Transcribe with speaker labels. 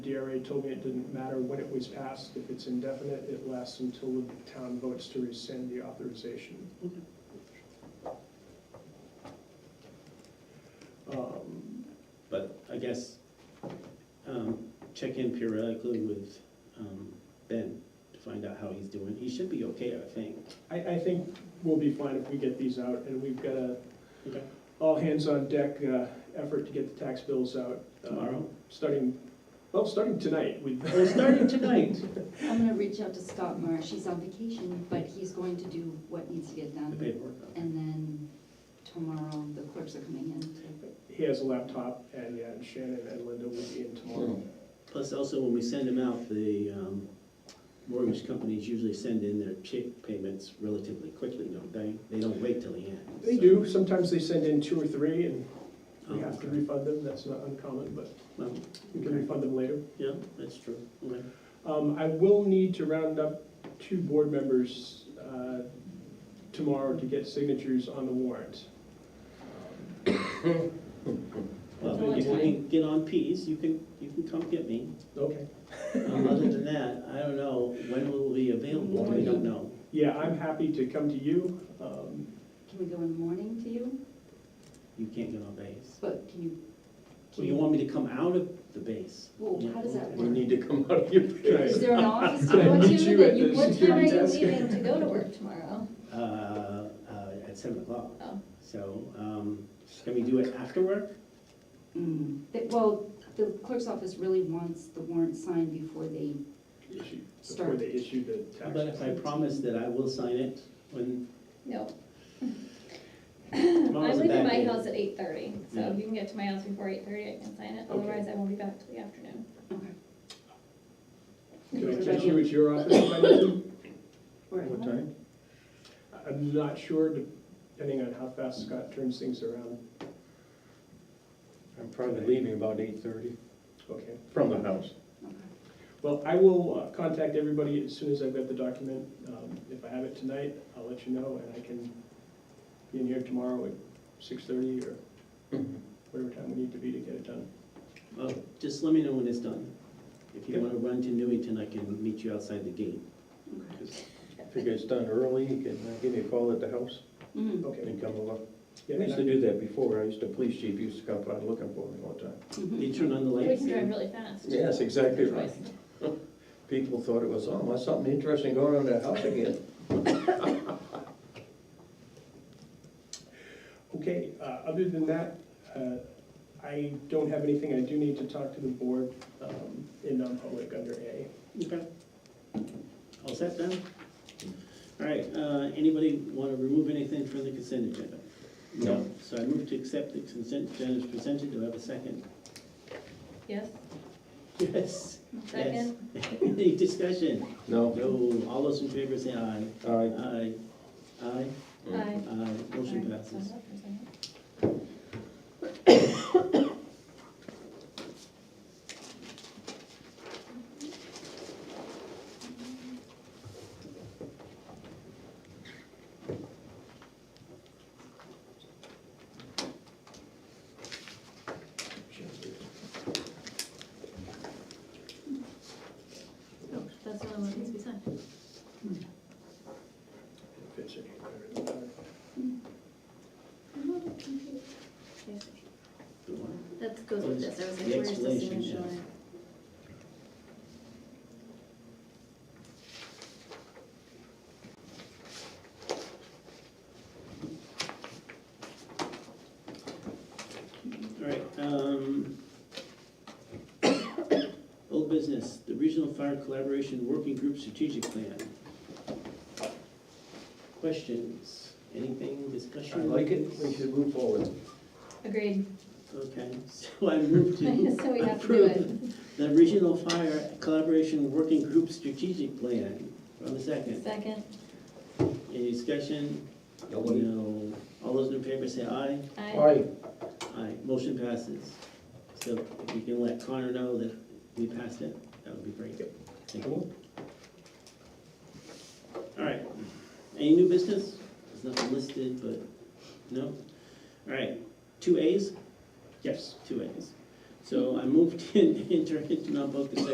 Speaker 1: already told me it didn't matter when it was passed. If it's indefinite, it lasts until the town votes to rescind the authorization. Um,
Speaker 2: But I guess, um, check in periodically with, um, Ben to find out how he's doing. He should be okay, I think.
Speaker 1: I, I think we'll be fine if we get these out, and we've got a
Speaker 2: Okay.
Speaker 1: all hands on deck uh, effort to get the tax bills out. uh,
Speaker 2: Tomorrow?
Speaker 1: Starting, well, starting tonight. We-
Speaker 2: We're starting tonight.
Speaker 3: I'm gonna reach out to Scott Marsh, he's on vacation, but he's going to do what needs to get
Speaker 2: The
Speaker 3: done.
Speaker 2: paperwork.
Speaker 3: And then tomorrow, the clerks are coming in to,
Speaker 1: He has a laptop, and yeah, and Shannon and Linda will be in
Speaker 4: Hmm.
Speaker 1: tomorrow.
Speaker 2: Plus also, when we send them out, the, um, mortgage companies usually send in their check payments relatively quickly, don't they? They don't wait till the end.
Speaker 1: They
Speaker 2: so-
Speaker 1: do, sometimes they send in two or three, and
Speaker 2: Oh,
Speaker 1: we have to
Speaker 2: okay.
Speaker 1: refund them, that's not uncommon, but um,
Speaker 2: Well,
Speaker 1: we can refund them later.
Speaker 2: yeah, that's true. Okay.
Speaker 1: Um, I will need to round up two board members uh, tomorrow to get signatures on the warrant. Um,
Speaker 2: Well,
Speaker 3: Only
Speaker 2: if you can
Speaker 3: time.
Speaker 2: get on peas, you can, you can come get me.
Speaker 1: Okay.
Speaker 2: Um, Other than that, I don't know, when will we be available, we don't know.
Speaker 1: Yeah, I'm happy to come to you. Um,
Speaker 3: can we go in the morning to you?
Speaker 2: You can't get on base.
Speaker 3: But can you?
Speaker 2: Well, you want me to come out of the base?
Speaker 3: Well, how does that
Speaker 4: You
Speaker 3: work?
Speaker 4: need to come out of your
Speaker 3: Is
Speaker 4: bed.
Speaker 3: there an office?
Speaker 1: Can I
Speaker 5: What
Speaker 1: meet
Speaker 5: time
Speaker 1: you
Speaker 5: is
Speaker 1: at
Speaker 5: it?
Speaker 1: the
Speaker 5: What time are
Speaker 1: security
Speaker 5: you
Speaker 1: desk?
Speaker 5: leaving to go to work tomorrow?
Speaker 2: Uh, uh, at seven o'clock.
Speaker 5: Oh.
Speaker 2: So, um, can we do it after work?
Speaker 3: Mm, that- Well, the clerk's office really wants the warrant signed before they
Speaker 1: issue- Before
Speaker 3: Start.
Speaker 1: they issue the
Speaker 2: How about
Speaker 1: tax.
Speaker 2: if I promise that I will sign it when,
Speaker 5: No.
Speaker 2: Tomorrow's a
Speaker 5: I'm leaving
Speaker 2: bad
Speaker 5: my
Speaker 2: day.
Speaker 5: house at eight thirty, so
Speaker 2: Yeah.
Speaker 5: if you can get to my house before eight thirty, I can sign it,
Speaker 1: Okay.
Speaker 5: otherwise I won't be back till the afternoon.
Speaker 3: Okay.
Speaker 1: Can I catch you at your office if I need to?
Speaker 3: we're at home.
Speaker 1: I'm not sure, depending on how fast Scott turns things around.
Speaker 4: I'm probably leaving about eight thirty
Speaker 1: Okay.
Speaker 4: from the house.
Speaker 3: Okay.
Speaker 1: Well, I will uh, contact everybody as soon as I've got the document. Um, If I have it tonight, I'll let you know, and I can be in here tomorrow at six-thirty or whatever time we need to be to get it done.
Speaker 2: well, just let me know when it's done. If you
Speaker 1: Okay.
Speaker 2: wanna run to Newington, I can meet you outside the gate.
Speaker 4: If it gets done early, you can uh, give me a call at the house
Speaker 3: Mm,
Speaker 1: Okay.
Speaker 4: and come along.
Speaker 1: Yeah,
Speaker 4: I
Speaker 1: and
Speaker 4: used to
Speaker 1: I-
Speaker 4: do that before. I used to, police chief used to come out looking for me all the time.
Speaker 3: mhm.
Speaker 2: You turn on the
Speaker 5: We
Speaker 2: lights?
Speaker 5: can drive really fast.
Speaker 4: Yes, exactly
Speaker 5: Good
Speaker 4: right.
Speaker 5: choice.
Speaker 4: People thought it was, oh, there's something interesting going on at the house again.
Speaker 1: Okay, uh, other than that, uh, I don't have anything. I do need to talk to the board um, in non-public under A.
Speaker 2: Okay. All set then? All right, uh, anybody want to remove anything from the consent agenda?
Speaker 4: No.
Speaker 2: So I move to accept the consent agenda as presented, do I have a second?
Speaker 5: Yes,
Speaker 2: Yes. Yes.
Speaker 5: second,
Speaker 2: Any discussion?
Speaker 4: No,
Speaker 2: No, all those in favor say aye.
Speaker 4: I,
Speaker 2: Aye. Aye,
Speaker 4: Mm.
Speaker 5: aye.
Speaker 2: aye, motion
Speaker 5: Sorry,
Speaker 2: passes.
Speaker 5: sign up for a second. Oh, That's the only one that needs to be signed.
Speaker 1: If it's any better than that.
Speaker 2: The one?
Speaker 5: Mm-hmm. That goes with this, I was like,
Speaker 2: The
Speaker 5: where's the
Speaker 2: explanation,
Speaker 5: signature?
Speaker 2: yes. All right, um, old business, the Regional Fire Collaboration Working Group Strategic Plan. Questions, anything,
Speaker 4: I
Speaker 2: discussion?
Speaker 4: like it. We should move forward.
Speaker 5: Agreed,
Speaker 2: Okay, so I move
Speaker 5: so
Speaker 2: to
Speaker 5: we have to do it.
Speaker 2: approve the Regional Fire Collaboration Working Group Strategic Plan. On the second,
Speaker 5: Second,
Speaker 2: any discussion?
Speaker 4: Nobody?
Speaker 2: No. All those in favor say aye.
Speaker 5: aye.
Speaker 4: Aye.
Speaker 2: Aye, motion passes. So if you can let Connor know that we passed it, that would be great. Thank you. All right, any new business? There's nothing listed, but, no? All right, two As?
Speaker 1: Yes.
Speaker 2: Two As. So I moved in, enter into non-public session